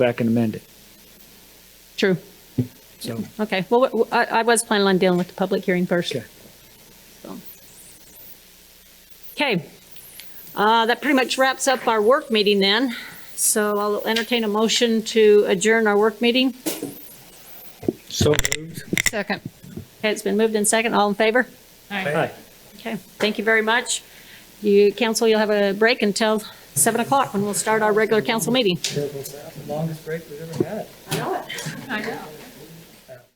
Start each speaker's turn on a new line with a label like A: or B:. A: back and amend it.
B: True.
A: So,
B: Okay. Well, w- I, I was planning on dealing with the public hearing first.
A: okay.
B: so. Okay. Uh, that pretty much wraps up our work meeting then. So I'll entertain a motion to adjourn our work meeting.
A: So moved.
C: Second.
B: Okay, it's been moved in second. All in favor?
A: Aye.
B: Okay, thank you very much. You, council, you'll have a break until seven o'clock when we'll start our regular council meeting.
D: Longest break we've ever had.
B: I know it.
C: I know.